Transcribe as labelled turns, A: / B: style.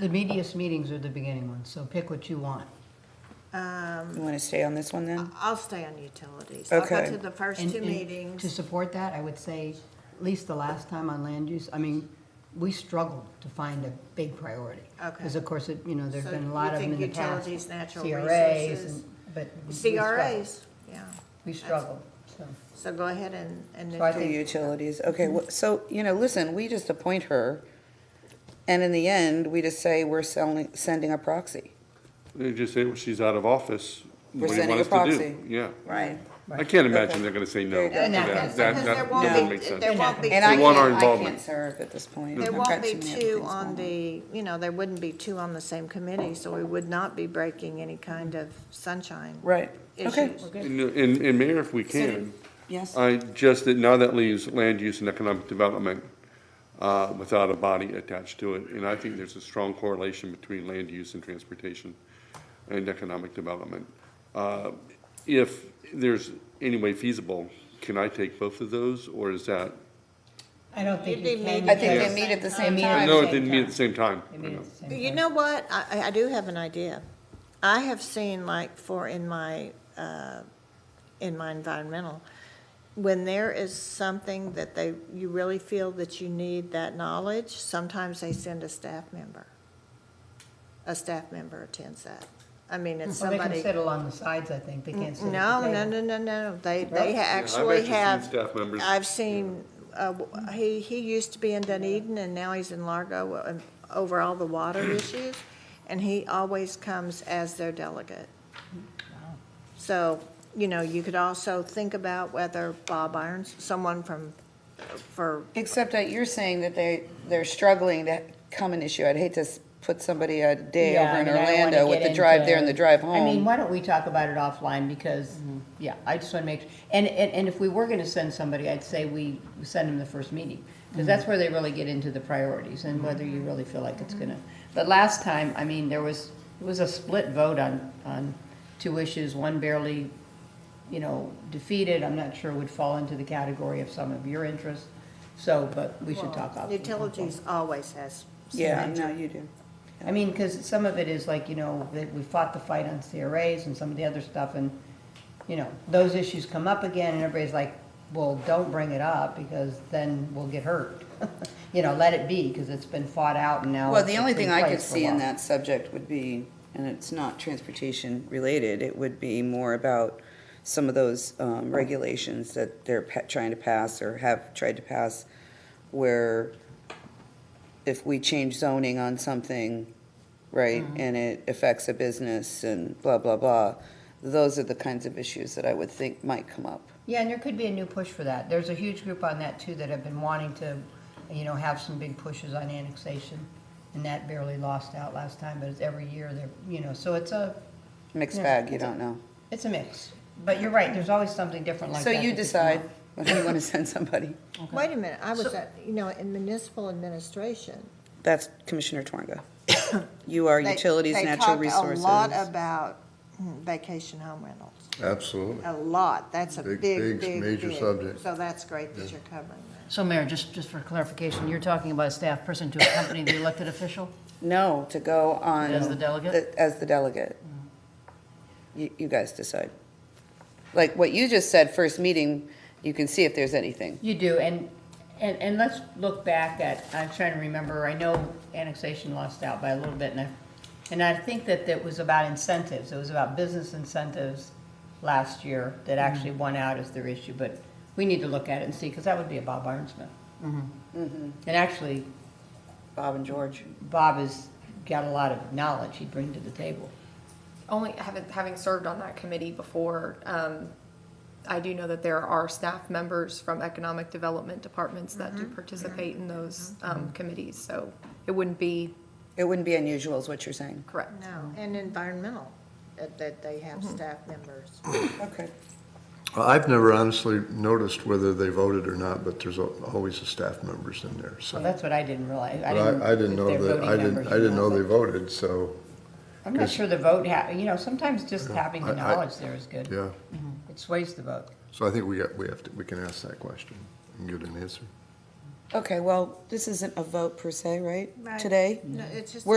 A: The meatiest meetings are the beginning ones, so pick what you want.
B: You want to stay on this one
A: Uh,
B: then?
C: I'll stay on utilities. I'll go
B: Okay.
C: to the first
A: And-
C: two
A: and To
C: meetings.
A: support that, I would say, at least the last time on land use, I mean, we struggled to find a big priority.
C: Okay.
A: Because of course, it, you know, there's
C: So
A: been
C: you
A: a lot of them
C: think
A: in the past.
C: utilities, natural
A: CRAs,
C: resources?
A: and- but. we struggled.
C: CRAs, yeah.
A: We struggled, so.
C: So go ahead and, and
A: So I
B: The
A: think-
B: utilities, okay, wh- so, you know, listen, we just appoint her, and in the end, we just say we're selling, sending a proxy.
D: They just say, well, she's out of office.
B: We're
D: What do you
B: sending
D: want
B: a
D: us to do?
B: proxy.
D: Yeah.
B: Right.
D: I can't imagine they're gonna say
B: There
D: no.
B: you
D: to
B: go. They're
A: not
D: that.
A: gonna say
D: That,
C: Because
D: that
C: there won't
D: doesn't
C: be-
D: make sense.
C: There won't be,
B: And I
D: We want our
B: can't, I can't
D: involvement.
B: serve at this point.
C: there
B: I've
C: won't
B: got
C: be
B: too many other
C: two
B: things
C: on
B: going
C: the, you know, there wouldn't be two on the same committee, so we would not be breaking any kind of sunshine
B: Right, okay,
C: issues.
D: And, and and Mayor, if we can,
B: yes,
D: I just, that now that leaves land use and economic development uh, without a body attached to it. And I think there's a strong correlation between land use and transportation and economic development. Uh, If there's any way feasible, can I take both of those, or is that?
A: I don't think
C: You'd
A: you
C: be
A: can.
C: meeting
B: I think they
A: because
B: meet at the
A: they
B: same
A: meet
B: time.
A: at
D: No,
A: the
D: it didn't meet at
A: time.
D: the same time.
A: They meet at the same
C: You
A: time.
C: know what, I, I- I do have an idea. I have seen like for in my, uh, in my environmental, when there is something that they, you really feel that you need that knowledge, sometimes they send a staff member. A staff member attends that. I mean, it's
A: Well, they can
C: somebody. Mm,
A: sit along the sides, I think, they can't sit at the
C: No, no,
A: table.
C: no, no, no, they, they ha-
D: I've
C: actually
D: actually seen
C: have.
D: staff members-
C: I've seen, uh, w- he, he used to be in Dunedin, and now he's in Largo, uh, over all the water issues, and he always comes as their delegate. So, you know, you could also think about whether Bob Irons, someone from, for,
B: except that you're saying that they, they're struggling to come an issue, I'd hate to s- put somebody a day
A: Yeah,
B: over
A: I
B: in
A: mean, I don't wanna
B: Orlando with
A: get
B: the drive
A: into-
B: there and the drive
A: I mean,
B: home. Mm-hmm.
A: why don't we talk about it offline, because, yeah, I just wanna make, and, and, and if we were gonna send somebody, I'd say we send them the first meeting. Because
B: Mm-hmm.
A: that's where they really get into the priorities and whether you really feel like it's
B: Mm-hmm.
A: gonna, but last time, I mean, there was, it was a split vote on, on two issues, one barely, you know, defeated, I'm not sure would fall into the category of some of your interests, so, but we should talk offline.
C: utilities always has.
B: Yeah, no, you do.
A: I mean, because some of it is like, you know, that we fought the fight on CRAs and some of the other stuff, and, you know, those issues come up again, and everybody's like, well, don't bring it up, because then we'll get hurt. You know, let it be, because it's been fought out and now.
B: Well, the
A: it's
B: only
A: been
B: thing I could
A: placed for a
B: see in
A: while.
B: that subject would be, and it's not transportation related, it would be more about some of those um, regulations that they're pa- trying to pass or have tried to pass, where if we change zoning on something, right,
A: Mm-hmm.
B: and it affects a business and blah, blah, blah, those are the kinds of issues that I would think might come up.
A: Yeah, and there could be a new push for that. There's a huge group on that too that have been wanting to, you know, have some big pushes on annexation. And that barely lost out last time, but it's every year they're, you know, so it's a,
B: Mixed
A: Yeah,
B: bag, you
A: it's a-
B: don't know.
A: it's a mix. But you're right, there's always something different like
B: So
A: that. that
B: you
A: could come
B: decide
A: up.
B: whether you want to send somebody.
C: Wait a minute, I was,
A: So-
C: at you know, in municipal administration,
B: That's Commissioner Twanga. You are
C: They-
B: utilities, natural
C: They talk a lot
B: resources.
C: about mm, vacation home rentals,
E: Absolutely.
C: a lot, that's a big,
E: Big-
C: big, big.
E: big, major subject.
C: So that's great that you're covering that.
F: So Mayor, just, just for clarification, you're talking about a staff person to accompany the elected official?
B: No, to go on.
F: As the delegate?
B: the- As the delegate.
C: Mm.
B: You, you guys decide. Like what you just said, first meeting, you can see if there's anything.
A: You do, and, and, and let's look back at, I'm trying to remember, I know annexation lost out by a little bit, and I, and I think that that was about incentives, it was about business incentives last year that
F: Mm-hmm.
A: actually won out as their issue, but we need to look at it and see, because that would be a Bob Ironsmith.
F: Mm-hmm.
A: And actually,
B: Bob and George.
A: Bob has got a lot of knowledge he'd bring to the table.
G: only having, having served on that committee before, um, I do know that there are staff members from economic development departments that do participate in those, um, committees, so it wouldn't be
B: It wouldn't be unusual is what you're saying.
G: correct.
C: No, and environmental, that, that they have staff members.
B: Okay.
E: Well, I've never honestly noticed whether they voted or not, but there's al- always the staff members in there,
A: Well,
E: so.
A: that's what I didn't realize.
E: But I, I didn't
A: if
E: know
A: they're
E: that,
A: voting
E: I didn't,
A: members
E: I
A: or
E: didn't
A: not,
E: know
A: but
E: they voted, so,
A: I'm not sure the vote ha, you know, sometimes just having the
E: I- I-
A: knowledge there is good. Mm-hmm.
E: yeah.
A: It sways the vote.
E: So I think we got, we have to, we can ask that question and get an answer.
B: Okay, well, this isn't a vote per se, right?
C: Right.
B: Today?
C: No, it's just.
B: We're